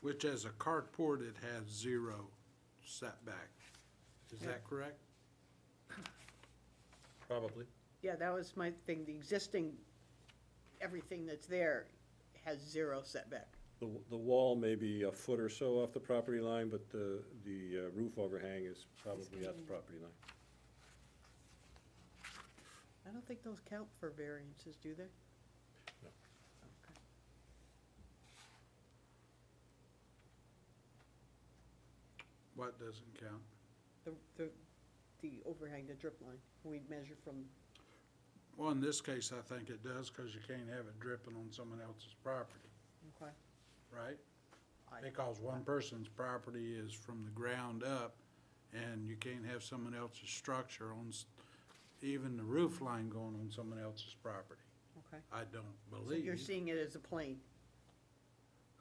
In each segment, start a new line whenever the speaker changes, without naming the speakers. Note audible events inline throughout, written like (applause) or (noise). which as a carport, it has zero setback. Is that correct?
Probably.
Yeah, that was my thing, the existing, everything that's there has zero setback.
The, the wall may be a foot or so off the property line, but the, the uh, roof overhang is probably at the property line.
I don't think those count for variances, do they?
No.
Okay.
What doesn't count?
The, the, the overhang, the drip line, we measure from,
Well, in this case, I think it does, because you can't have it dripping on someone else's property,
okay?
right?
I-
Because one person's property is from the ground up, and you can't have someone else's structure on, s- even the roof line going on someone else's property.
Okay.
I don't
So you're
believe.
seeing it as a plane.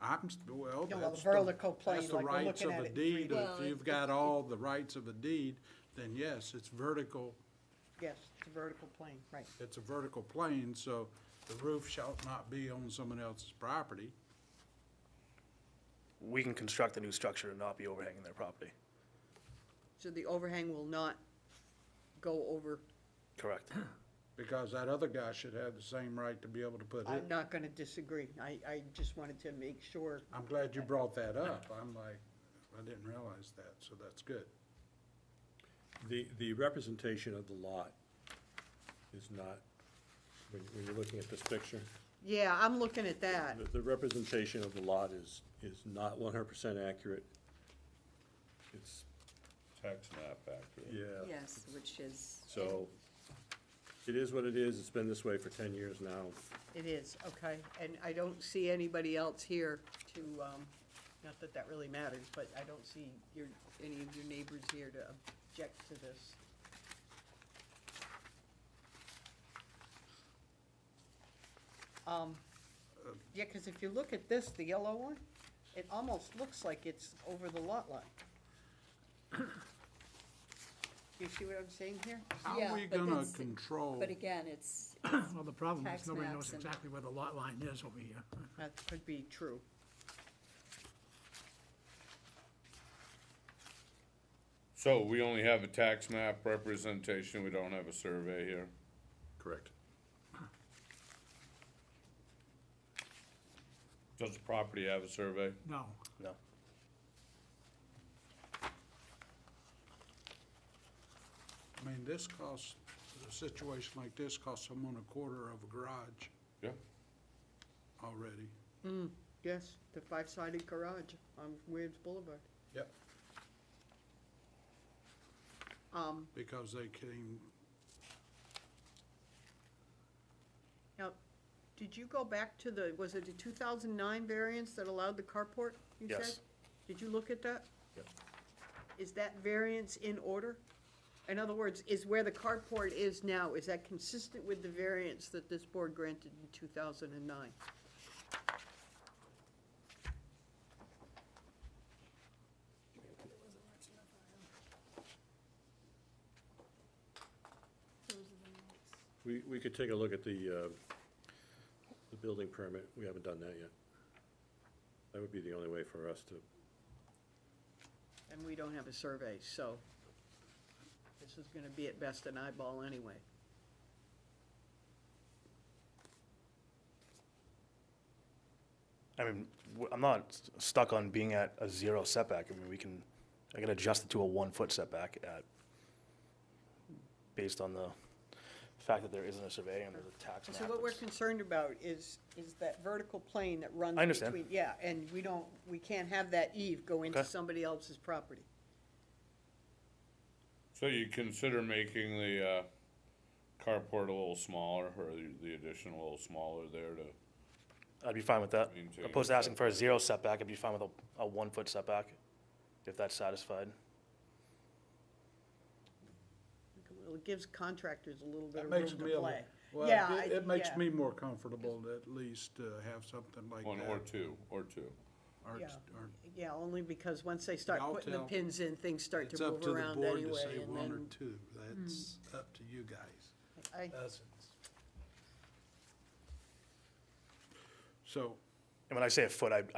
I'm, s- well,
Yeah, well,
that's
the vertical
the,
plane,
that's the
like we're
rights
looking
of a
at it in
deed.
3D.
If you've got all the rights of a deed, then yes, it's vertical,
Yes, it's a vertical plane, right.
it's a vertical plane, so the roof shall not be on someone else's property.
we can construct a new structure and not be overhanging their property.
So the overhang will not go over,
Correct.
Because that other guy should have the same right to be able to put
I'm
it.
not gonna disagree. I, I just wanted to make sure.
I'm glad you brought that up. I'm like, I didn't realize that, so that's good.
The, the representation of the lot is not, when, when you're looking at this picture,
Yeah, I'm looking at that.
the, the representation of the lot is, is not one hundred percent accurate. It's,
Tax map accurate.
yeah,
Yes, which is.
so, it is what it is, it's been this way for ten years now.
It is, okay, and I don't see anybody else here to, um, not that that really matters, but I don't see your, any of your neighbors here to object to this. Um, yeah, cause if you look at this, the yellow one, it almost looks like it's over the lot line. (coughs) You see what I'm saying here?
How
Yeah,
are we
but
gonna
that's-
control?
But again, it's,
Well, the problem
Tax
is nobody
maps
knows
and-
exactly where the lot line is over here.
That could be true.
So we only have a tax map representation, we don't have a survey here.
Correct.
Does the property have a survey?
No,
No.
I mean, this costs, a situation like this costs someone a quarter of a garage
Yeah.
already.
Yes, the five-sided garage on Williams Boulevard.
Yep.
Um,
Because they came,
now, did you go back to the, was it the two thousand nine variance that allowed the carport, you said?
Yes.
Did you look at that?
Yep.
Is that variance in order? In other words, is where the carport is now, is that consistent with the variance that this board granted in two thousand and nine?
We, we could take a look at the, uh, the building permit, we haven't done that yet. That would be the only way for us to,
And we don't have a survey, so this is gonna be at best an eyeball anyway.
I mean, w- I'm not s- stuck on being at a zero setback. I mean, we can, I can adjust it to a one-foot setback at, based on the fact that there isn't a survey and there's a tax
And
map.
So what we're
that's-
concerned about is, is that vertical plane that runs between.
I understand.
Yeah, and we don't, we can't have that eve go into
Okay.
somebody else's property.
So you consider making the, uh, carport a little smaller, or the- the addition a little smaller there to,
I'd be fine with that.
Maintain
Opposed to asking for a zero setback, I'd be fine with a, a one-foot setback, if that's satisfied.
Well, it gives contractors a little bit
it
of
makes
room
me,
to
a-
play.
well,
Yeah,
it-
I-
it makes
yeah.
me more comfortable to at least uh, have something like
one or
that.
two, or two.
Or,
Yeah.
or
Yeah, only because once they start
I'll
putting the
tell-
pins in, things start
It's
to
up
move
to the
around
board to
anyway,
say
and
one or
then. Hmm.
two. That's up to you guys,
I-
us. So,
And when I say a foot, I, I